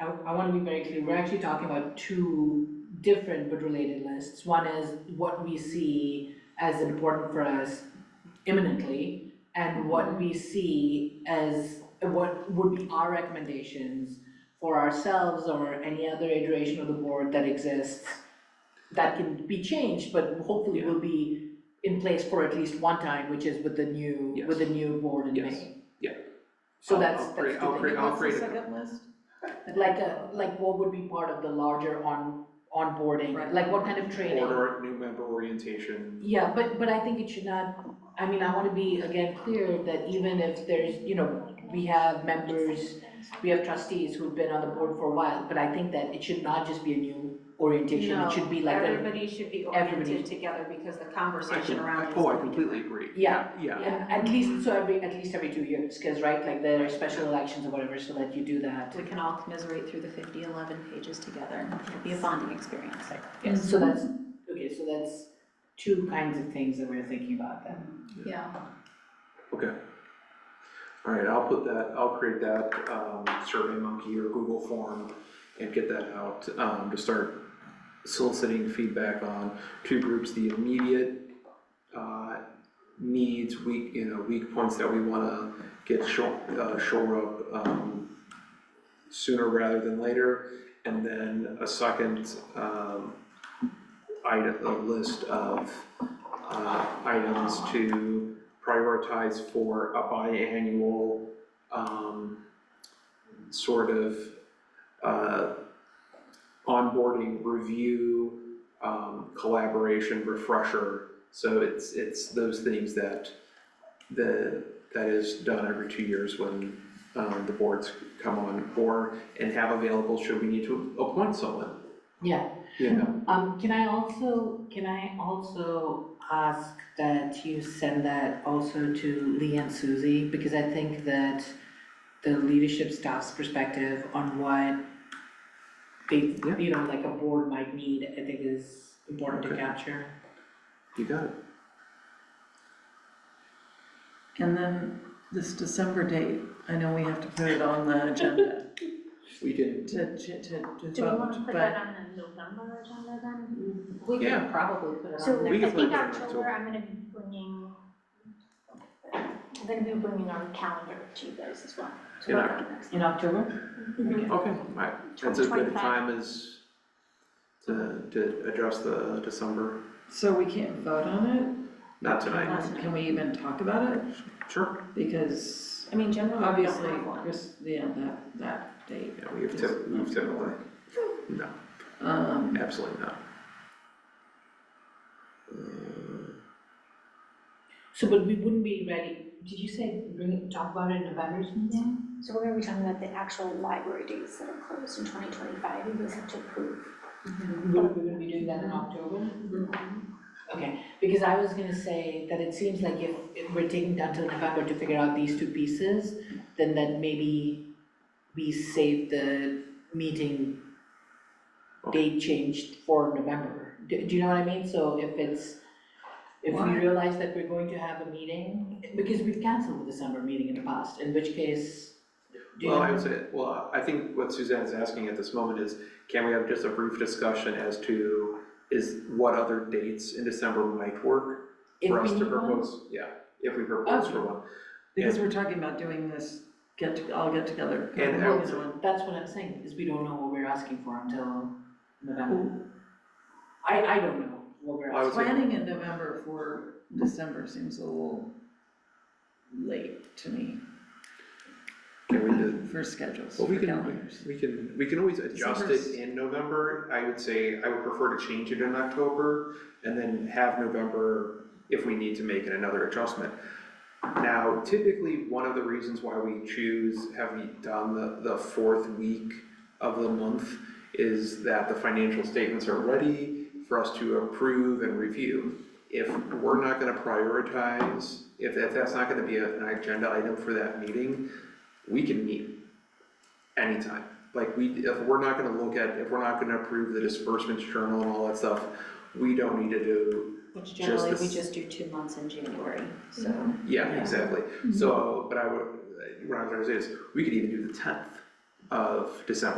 I wanna be very clear, we're actually talking about two different but related lists. One is what we see as important for us imminently and what we see as, what would be our recommendations for ourselves or any other iteration of the board that exists that can be changed, but hopefully will be in place for at least one time, which is with the new, with the new board in May. Yes. Yeah. So I'll- that's, I'll that's create- I'll two create- things. I'll create a What's the second list? like a, like what would be part of the larger on, onboarding, Right. like what kind of training? Order, new member orientation. Yeah, but, but I think it should not, I mean, I wanna be again clear that even if there's, you know, we have members, we have trustees who've been on the board for a while, but I think that it should not just be a new orientation, it should be like No, a, everybody should be everybody. oriented together because the I conversation can- around is. Oh, I completely agree. Yeah. Yeah, and at least, so every, at least every two years, cause right, like there are special elections or whatever, so that you do that. We can all commiserate through the 50, 11 pages together. It'll be a bonding experience. Yes. So that's, okay, so that's two kinds of things that we're thinking about then. Yeah. alright, I'll put that, I'll create that, um, survey monkey or Google form and get that out, um, to start soliciting feedback on two groups, the immediate, uh, needs, weak, you know, weak points that we wanna get shore, uh, shore up, um, sooner rather than later, and then a second, um, item, a list of, uh, items to prioritize for a biannual, um, sort of, uh, onboarding, review, um, collaboration, refresher. So it's, it's those things that, the, that is done every two years when, um, the boards come on, or, and have available should we need to appoint someone, Yeah, you know? Um, can I also, can I also ask that you send that also to Lee and Susie? Because I think that the leadership staff's perspective on what they, Yeah. you know, like a board might need, I think is important to Okay. capture. You got it. And then this December date, I know we have to put it on the agenda We did. to, to, to Do we wanna vote, put that but on the November agenda then? We Yeah. could probably put it So on there. We can I put it think on October. October, I'm gonna be bringing, I'm gonna be bringing our calendar to you guys as well. to In work Oc- on next. In October? Mhm. Okay, alright, that's as good a time as to, to address the December, so we can't vote on not tonight, it? Can we even talk about it? sure, Because I mean, generally, we don't obviously, have one. Chris, yeah, that, that date. yeah, we've typ- we've typically, no, Um, absolutely not. Uh, So, but we wouldn't be ready, did you say bring it, talk about it in November's meeting? So we're gonna be talking about the actual library dates that are closed in twenty twenty-five, you guys have to approve. We're, we're gonna be doing that in October? Mm-hmm. Okay, because I was gonna say that it seems like if, if we're taking down till November to figure out these two pieces, then that maybe we save the meeting date changed for November. Do, do you know what I mean? So if it's, if we Why? realize that we're going to have a meeting, because we've canceled the December meeting in the past, in which case, do you? Well, I would say, well, I think what Suzanne's asking at this moment is, can we have just a brief discussion as to is what other dates in December might work if for we us to need one? Oh. propose, yeah, if we propose for one. because we're talking about doing this get, to- all get together. And Well, act- on- That's what I'm saying, is we don't know what we're asking for until November. I, I don't know what we're I was- asking. Planning in November for December seems a little late to me Can we do, for schedules, Well, we for can- calendars. We can, we can always adjust December's- it in November, I would say, I would prefer to change it in October, and then have November if we need to make another adjustment. Now, typically, one of the reasons why we choose, have we done the, the fourth week of the month, is that the financial statements are ready for us to approve and review. If we're not gonna prioritize, if that, that's not gonna be a- an agenda item for that meeting, we can meet anytime. Like we, if we're not gonna look at, if we're not gonna approve the disbursements journal and all that stuff, we don't need to do, Which Just generally, we this- just do two months in January, so. Mm-hmm. yeah, exactly. So, but I would, what I was gonna say is, we could even do the tenth of December.